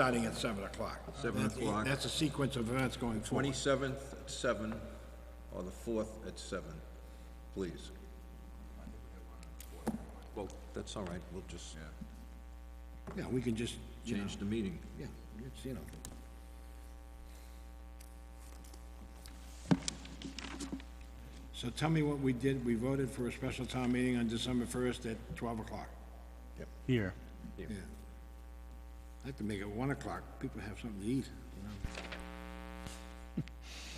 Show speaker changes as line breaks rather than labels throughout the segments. starting at seven o'clock.
Seven
That-
o'clock.
That's a sequence of events going forward.
Twenty-seventh at seven, or the fourth at seven, please. Well, that's all right, we'll just
Yeah, we can just, you know,
change the meeting.
yeah, it's, you know. So tell me what we did. We voted for a special town meeting on December first at twelve o'clock.
Here.
Yeah. I have to make it one o'clock. People have something to eat, you know.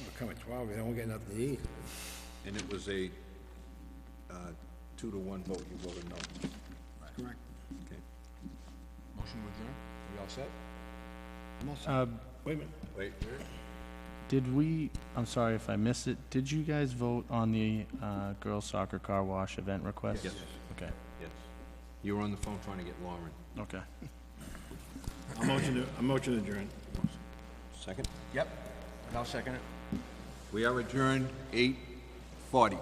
Well, Come at twelve, they don't get nothing to eat.
And it was a, uh, two to one vote, you voted no.
That's correct.
Okay.
Motion to adjourn?
We all set?
I'm all set. Wait a minute.
Wait,
Did we, I'm sorry if I missed it, did you guys vote on the uh, girls soccer car wash event request?
Yes.
Okay,
yes. You were on the phone trying to get Lauren.
okay.
A motion to, a motion adjourned.
Second?
Yep, and I'll second it.
We are adjourned eight forty.